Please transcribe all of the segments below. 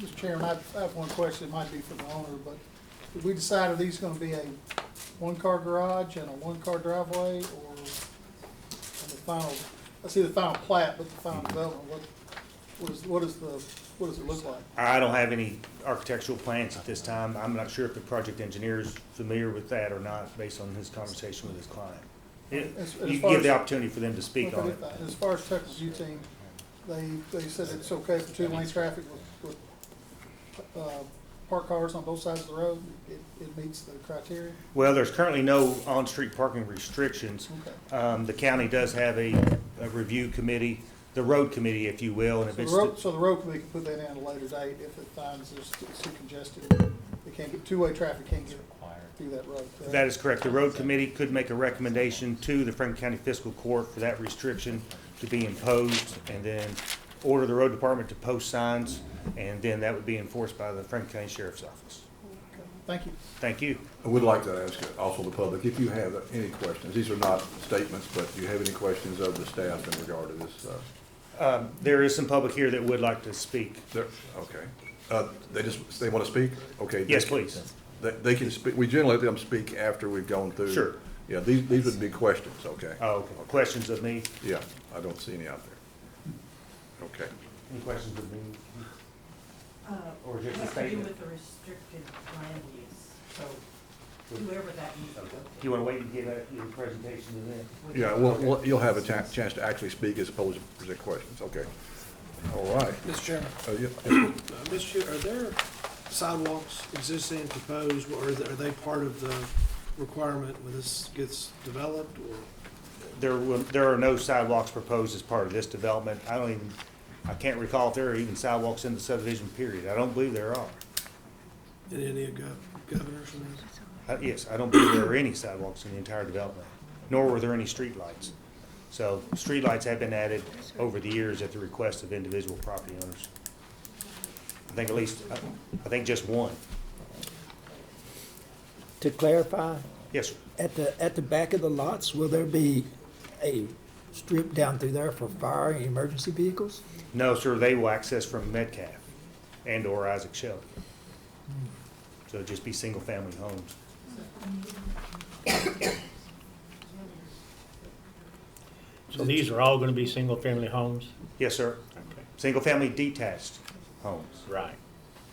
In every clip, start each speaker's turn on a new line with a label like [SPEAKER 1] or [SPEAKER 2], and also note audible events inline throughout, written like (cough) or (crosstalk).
[SPEAKER 1] Mr. Chairman, I I have one question, it might be for the owner, but did we decide are these gonna be a one-car garage and a one-car driveway, or on the final, I see the final plat, but the final development, what, what is, what is the, what does it look like?
[SPEAKER 2] I don't have any architectural plans at this time. I'm not sure if the project engineer is familiar with that or not, based on his conversation with his client. It-
[SPEAKER 1] As- as
[SPEAKER 2] You
[SPEAKER 1] far
[SPEAKER 2] give the
[SPEAKER 1] as-
[SPEAKER 2] opportunity for them to speak on it.
[SPEAKER 1] As far as Texas U team, they, they said it's okay for two-lane traffic with, with, uh, parked cars on both sides of the road, it, it meets the criteria?
[SPEAKER 2] Well, there's currently no on-street parking restrictions.
[SPEAKER 1] Okay.
[SPEAKER 2] Um, the county does have a, a review committee, the road committee, if you will, and if
[SPEAKER 1] So
[SPEAKER 2] it's.
[SPEAKER 1] the road, so the road committee can put that in at a later date if it finds it's it's too congested. It can't get, two-way traffic can't get through that road. correct?
[SPEAKER 2] That is correct. The road committee could make a recommendation to the Franklin County Fiscal Court for that restriction to be imposed, and then order the road department to post signs, and then that would be enforced by the Franklin County Sheriff's Office.
[SPEAKER 1] Okay, Thank you.
[SPEAKER 2] Thank you.
[SPEAKER 3] I would like to ask also the public, if you have any questions, these are not statements, but do you have any questions of the staff in regard to this? uh,
[SPEAKER 2] Um, There is some public here that would like to speak.
[SPEAKER 3] there- Okay. Uh, They just, they want to speak? Okay. they-
[SPEAKER 2] Yes, please.
[SPEAKER 3] They they can speak, we generally let them speak after we've gone through.
[SPEAKER 2] Sure.
[SPEAKER 3] Yeah, these, these would be questions, okay?
[SPEAKER 2] Oh, questions of me?
[SPEAKER 3] Yeah, I don't see any out there. Okay.
[SPEAKER 2] Any questions of me?
[SPEAKER 4] Uh,
[SPEAKER 2] Or just a
[SPEAKER 4] has to do
[SPEAKER 2] statement?
[SPEAKER 4] with the restricted land use, so whoever that means.
[SPEAKER 2] Do you want to wait and give that- your presentation to them?
[SPEAKER 3] Yeah, well, well, you'll have a chan- chance to actually speak as opposed to present questions, okay. All right.
[SPEAKER 5] Mr. Chairman,
[SPEAKER 3] Uh, yeah, yeah.
[SPEAKER 5] uh, Mr. Chair, are there sidewalks existing, proposed, or are they- are they part of the requirement when this gets developed, or?
[SPEAKER 2] There will, there are no sidewalks proposed as part of this development. I don't even, I can't recall if there are even sidewalks in the subdivision period. I don't believe there are.
[SPEAKER 5] In any of gov- governors from this?
[SPEAKER 2] Uh, Yes, I don't believe there are any sidewalks in the entire development, nor were there any streetlights. So streetlights have been added over the years at the request of individual property owners. I think at least, I I think just one.
[SPEAKER 6] To clarify,
[SPEAKER 2] Yes, sir.
[SPEAKER 6] at the, at the back of the lots, will there be a strip down through there for fire and emergency vehicles?
[SPEAKER 2] No, sir, they will access from Metcalf and/or Isaac Shelby. So it'd just be single-family homes.
[SPEAKER 7] So these are all gonna be single-family homes?
[SPEAKER 2] Yes, sir.
[SPEAKER 7] Okay.
[SPEAKER 2] Single-family detached homes.
[SPEAKER 7] Right.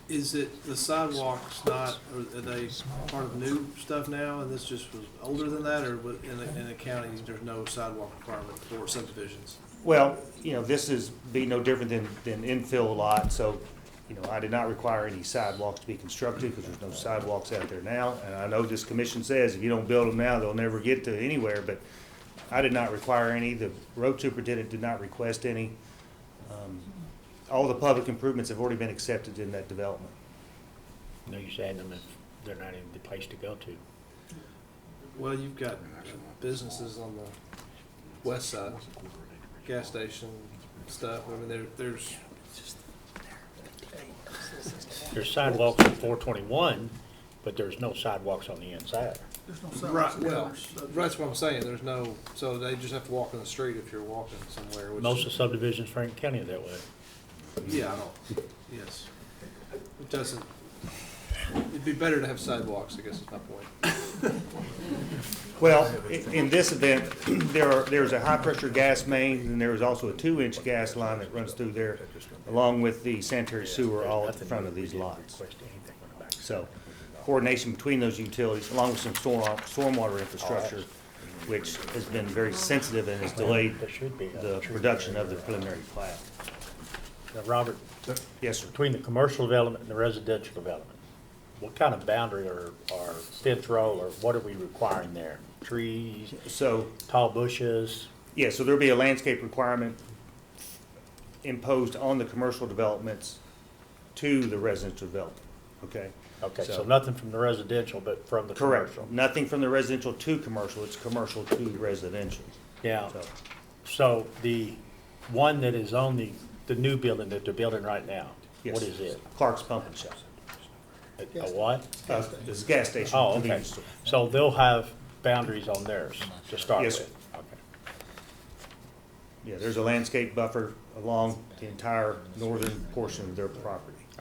[SPEAKER 5] Is it, the sidewalks not, are are they part of new stuff now, and this just was older than that, or what- in the, in the county, there's no sidewalk requirement for subdivisions?
[SPEAKER 2] Well, you know, this is, be no different than, than infill lot, so, you know, I did not require any sidewalks to be constructed, because there's no sidewalks out there now, and I know this commission says if you don't build them now, they'll never get to anywhere, but I did not require any, the road superintendent did not request any. Um, All the public improvements have already been accepted in that development.
[SPEAKER 7] No use adding them if they're not even the place to go to.
[SPEAKER 5] Well, you've got uh, businesses on the west side, gas station stuff, I mean, there, there's,
[SPEAKER 7] There's sidewalks on four twenty-one, but there's no sidewalks on the inside.
[SPEAKER 1] There's no
[SPEAKER 5] Right,
[SPEAKER 1] sidewalks.
[SPEAKER 5] well, that's what I'm saying, there's no, so they just have to walk in the street if you're walking somewhere, which.
[SPEAKER 7] Most of the subdivisions in Franklin County are that way.
[SPEAKER 5] Yeah, I don't, yes. It doesn't, it'd be better to have sidewalks, I guess is my point.
[SPEAKER 2] Well, i- in this event, (clears throat) there are, there's a high-pressure gas main, and there is also a two-inch gas line that runs through there, along with the sanitary sewer all at the front of these lots.
[SPEAKER 7] Request anything on the back.
[SPEAKER 2] So coordination between those utilities, along with some storm, stormwater infrastructure, which has been very sensitive and has delayed
[SPEAKER 7] There should be a-
[SPEAKER 2] the production of the preliminary plat.
[SPEAKER 7] Now, Robert,
[SPEAKER 2] Yes, sir.
[SPEAKER 7] between the commercial development and the residential development, what kind of boundary or, or fence row, or what are we requiring there? Trees,
[SPEAKER 2] So
[SPEAKER 7] tall bushes?
[SPEAKER 2] Yeah, so there'll be a landscape requirement imposed on the commercial developments to the residential development, okay?
[SPEAKER 7] Okay, so
[SPEAKER 2] So-
[SPEAKER 7] nothing from the residential, but from the
[SPEAKER 2] Correct.
[SPEAKER 7] commercial?
[SPEAKER 2] Nothing from the residential to commercial, it's commercial to residential.
[SPEAKER 7] Yeah.
[SPEAKER 2] So,
[SPEAKER 7] So the one that is on the, the new building that they're building right now,
[SPEAKER 2] yes.
[SPEAKER 7] what is it?
[SPEAKER 2] Clark's Pump and Shop.
[SPEAKER 7] A- A what?
[SPEAKER 2] Uh, It's a gas station.
[SPEAKER 7] Oh, okay.
[SPEAKER 2] convenience store.
[SPEAKER 7] So they'll have boundaries on theirs to start
[SPEAKER 2] Yes,
[SPEAKER 7] with? Okay.
[SPEAKER 2] Yeah, there's a landscape buffer along the entire northern portion of their property.